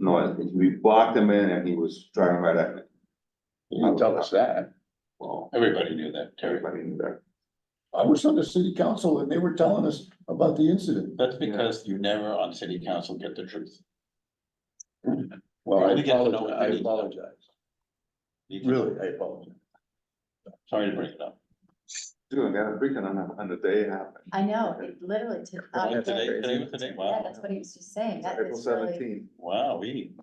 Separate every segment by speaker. Speaker 1: No, we blocked him in and he was driving right at me.
Speaker 2: You didn't tell us that.
Speaker 1: Well,
Speaker 2: Everybody knew that, Terry.
Speaker 1: everybody knew that.
Speaker 2: I was on the city council and they were telling us about the incident.
Speaker 3: That's because you never on city council get the truth.
Speaker 2: Well, I
Speaker 3: You get to know what
Speaker 2: apologize, I
Speaker 3: you need.
Speaker 2: apologize.
Speaker 3: You can-
Speaker 2: Really, I apologize.
Speaker 3: Sorry to bring it up.
Speaker 1: Dude, I got a freaking on, the- on the day it happened.
Speaker 4: I know, it literally took.
Speaker 2: Yeah,
Speaker 4: I-
Speaker 3: Today, today was the day,
Speaker 4: Yeah,
Speaker 3: wow,
Speaker 4: that's what he was just saying, that
Speaker 1: April
Speaker 4: is really,
Speaker 1: seventeenth
Speaker 3: wow, we,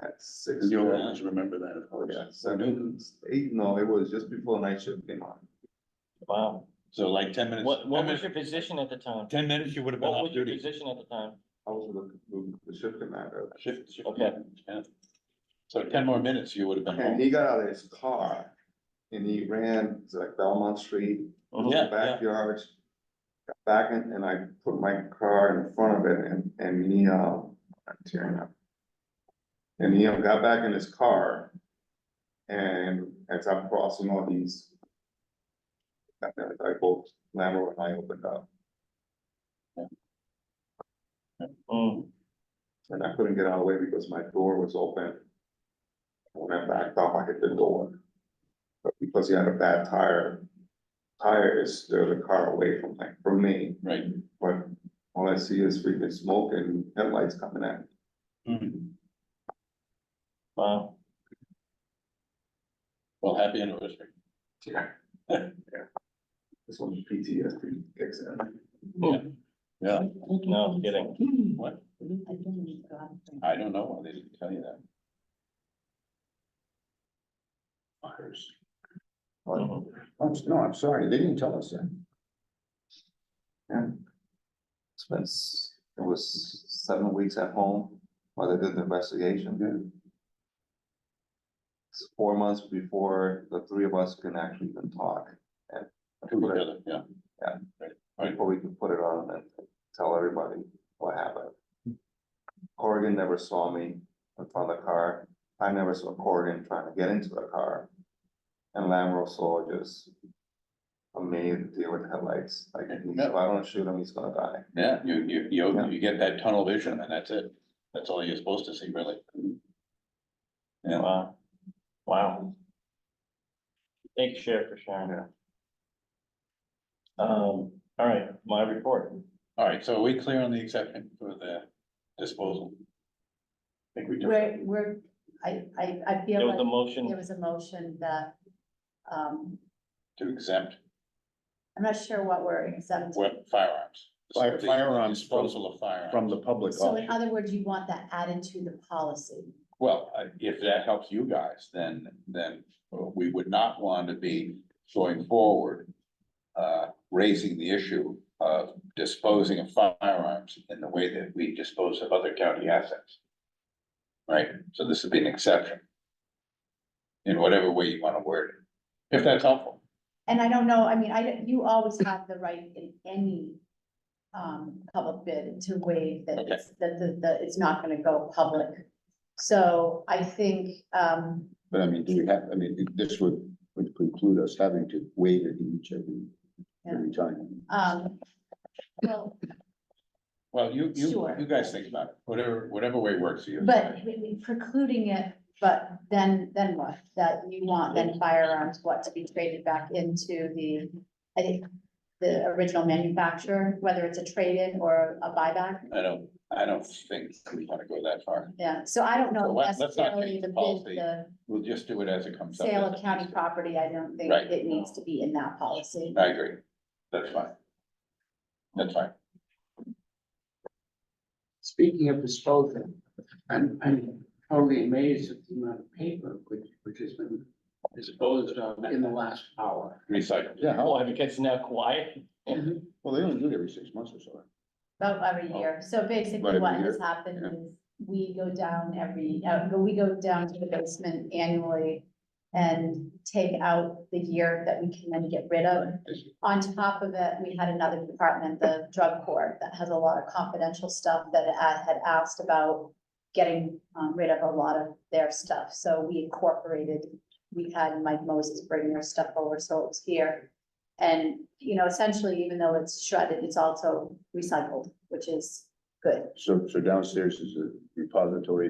Speaker 1: at six. Oh,
Speaker 2: You'll always remember that, of course.
Speaker 1: Yeah, seven, eight, no, it was just before night shift came on.
Speaker 5: Wow.
Speaker 3: so like ten minutes.
Speaker 5: What, what
Speaker 3: 10
Speaker 5: was your
Speaker 3: minutes-
Speaker 5: position at the time?
Speaker 3: Ten minutes, you would have been
Speaker 5: What
Speaker 3: off
Speaker 5: was your
Speaker 3: duty.
Speaker 5: position at the time?
Speaker 1: I was the, the shift commander.
Speaker 3: Shift, shift.
Speaker 5: Okay.
Speaker 3: Yeah. So ten more minutes, you would have been
Speaker 1: And
Speaker 3: home.
Speaker 1: he got out of his car and he ran to like Belmont Street,
Speaker 3: Yeah, yeah.
Speaker 1: backyard. Got back in and I put my car in front of it and, and he, uh, I'm tearing up. And he uh, got back in his car. And as I'm crossing all these. I I both, Lambo and I opened up
Speaker 5: Mm.
Speaker 1: and I couldn't get out of the way because my door was open. When I backed off, I hit the door. But because he had a bad tire, tire is still the car away from like, from me.
Speaker 3: Right.
Speaker 1: But all I see is freaking smoke and headlights coming at me.
Speaker 3: Mhm.
Speaker 5: Wow.
Speaker 3: Well, happy anniversary.
Speaker 1: Yeah. This one PTSD kicks in.
Speaker 3: Yeah,
Speaker 5: No, I'm kidding.
Speaker 3: what?
Speaker 4: I think he's gone from-
Speaker 3: I don't know why they didn't tell you that. Fires.
Speaker 5: Mhm.
Speaker 2: I'm, Oh, no, I'm sorry, they didn't tell us that.
Speaker 1: Spence, it was seven weeks at home while they did the investigation. It's Four months before the three of us can actually even talk. and
Speaker 3: To each other, yeah.
Speaker 1: Yeah.
Speaker 3: Right. Right.
Speaker 1: Before we can put it on and tell everybody what happened. Corrigan never saw me in front of the car. I never saw Corrigan trying to get into the car. And Lamro saw just a man deal with headlights, like, if I don't shoot him, he's gonna die.
Speaker 3: Yeah, you, you, you,
Speaker 1: Yeah.
Speaker 3: you get that tunnel vision and that's it. That's all you're supposed to see, really. Yeah,
Speaker 5: Wow. Wow. Thank you, Sheriff, for sharing that. Um, all right, my report.
Speaker 3: all right, so are we clear on the exception for the disposal? I think we do.
Speaker 4: We're, we're, I, I, I
Speaker 5: There
Speaker 4: feel
Speaker 5: was
Speaker 4: like
Speaker 5: a
Speaker 4: there
Speaker 5: motion.
Speaker 4: was a motion that, um,
Speaker 3: To exempt
Speaker 4: I'm not sure what we're exempting.
Speaker 3: wep- firearms.
Speaker 2: Fire-
Speaker 3: The
Speaker 2: firearms from-
Speaker 3: Disposal of firearms.
Speaker 2: From the public.
Speaker 4: So uh, in
Speaker 2: option.
Speaker 4: other words, you want that added to the policy.
Speaker 3: Well, I- if that helps you guys, then, then we would not want to be going forward. Uh, raising the issue of disposing of firearms in the way that we dispose of other county assets. Right, so this would be an exception. In whatever way you want to word it, if that's helpful.
Speaker 4: And I don't know, I mean, I, don't- you always have the right in any um, public bid to waive that it's, that, that, that it's not gonna go public. So I think, um,
Speaker 2: But I mean, do we have, I mean, this would, would preclude us having to waive it each every, every time.
Speaker 4: um, well,
Speaker 3: Well, you, you,
Speaker 4: Sure.
Speaker 3: you guys think about it, whatever, whatever way works for you.
Speaker 4: but precluding it, but then, then what? That you want then firearms, what to be traded back into the, I think, the original manufacturer, whether it's a trade-in or a buyback?
Speaker 3: I don't, I don't think we want to go that far,
Speaker 4: Yeah, so I don't
Speaker 3: So
Speaker 4: know
Speaker 3: let- let's not
Speaker 4: necessarily
Speaker 3: change
Speaker 4: the
Speaker 3: the
Speaker 4: bid,
Speaker 3: policy.
Speaker 4: the
Speaker 3: we'll just do it as it comes up.
Speaker 4: sale
Speaker 3: as
Speaker 4: of
Speaker 3: it
Speaker 4: county
Speaker 3: comes up.
Speaker 4: property, I don't think
Speaker 3: Right.
Speaker 4: it needs to be in that policy.
Speaker 2: Uh,
Speaker 3: I agree. That's fine. That's fine.
Speaker 6: Speaking of disposal, I'm, I'm totally amazed at the amount of paper which, which has been disposed of in the last hour.
Speaker 3: Recycle.
Speaker 2: Yeah, how,
Speaker 5: Oh, have you guys now quiet?
Speaker 2: well, they only do it every six months or so.
Speaker 4: About every year, so
Speaker 2: About
Speaker 4: basically
Speaker 2: every
Speaker 4: what has
Speaker 2: year?
Speaker 4: happened
Speaker 2: Yeah.
Speaker 4: is, we go down every, uh, we go down to the basement annually. And take out the year that we can then get rid of, On top of it, we had another department, the drug court, that has a lot of confidential stuff that a- had asked about getting um, rid of a lot of their stuff. So we incorporated, we had Mike Moses bring their stuff over, so it was here. And, you know, essentially, even though it's shredded, it's also recycled, which is good.
Speaker 2: So, so downstairs is a repository